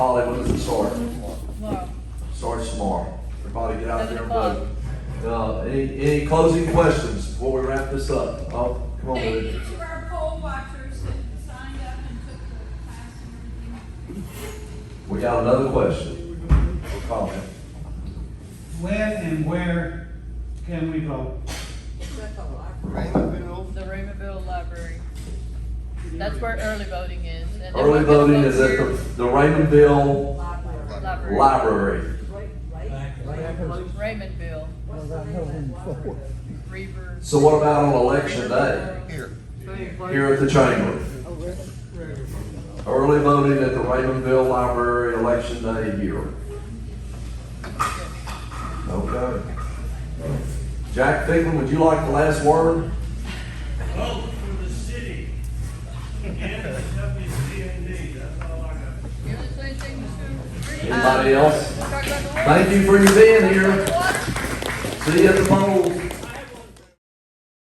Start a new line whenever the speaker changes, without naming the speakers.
All they want is a sword.
Well,
Sword tomorrow. Everybody get out
Seven
there and
o'clock.
vote. Uh, any, any closing questions before we wrap this up? Oh, come on,
Thank
Lou.
each of our poll watchers that signed up and took the class and everything.
We got another question or comment.
When and where can we vote?
the Raymondville Library. That's where early voting is. and then
Early
we're gonna
voting
vote
is at the,
here,
the Raymondville
Library.
Library.
Raymondville, Reaver.
So what about on election day?
Here.
Here at the chamber? Early voting at the Raymondville Library, election day here. Okay. Jack Figlin, would you like the last word?
vote for the city. And the WCND, that's all I got.
You're the same thing, Mr. Reed.
Anybody
Um,
else?
we'll talk about the water.
Thank you for your being
Talk
here.
about the water.
See you at the polls.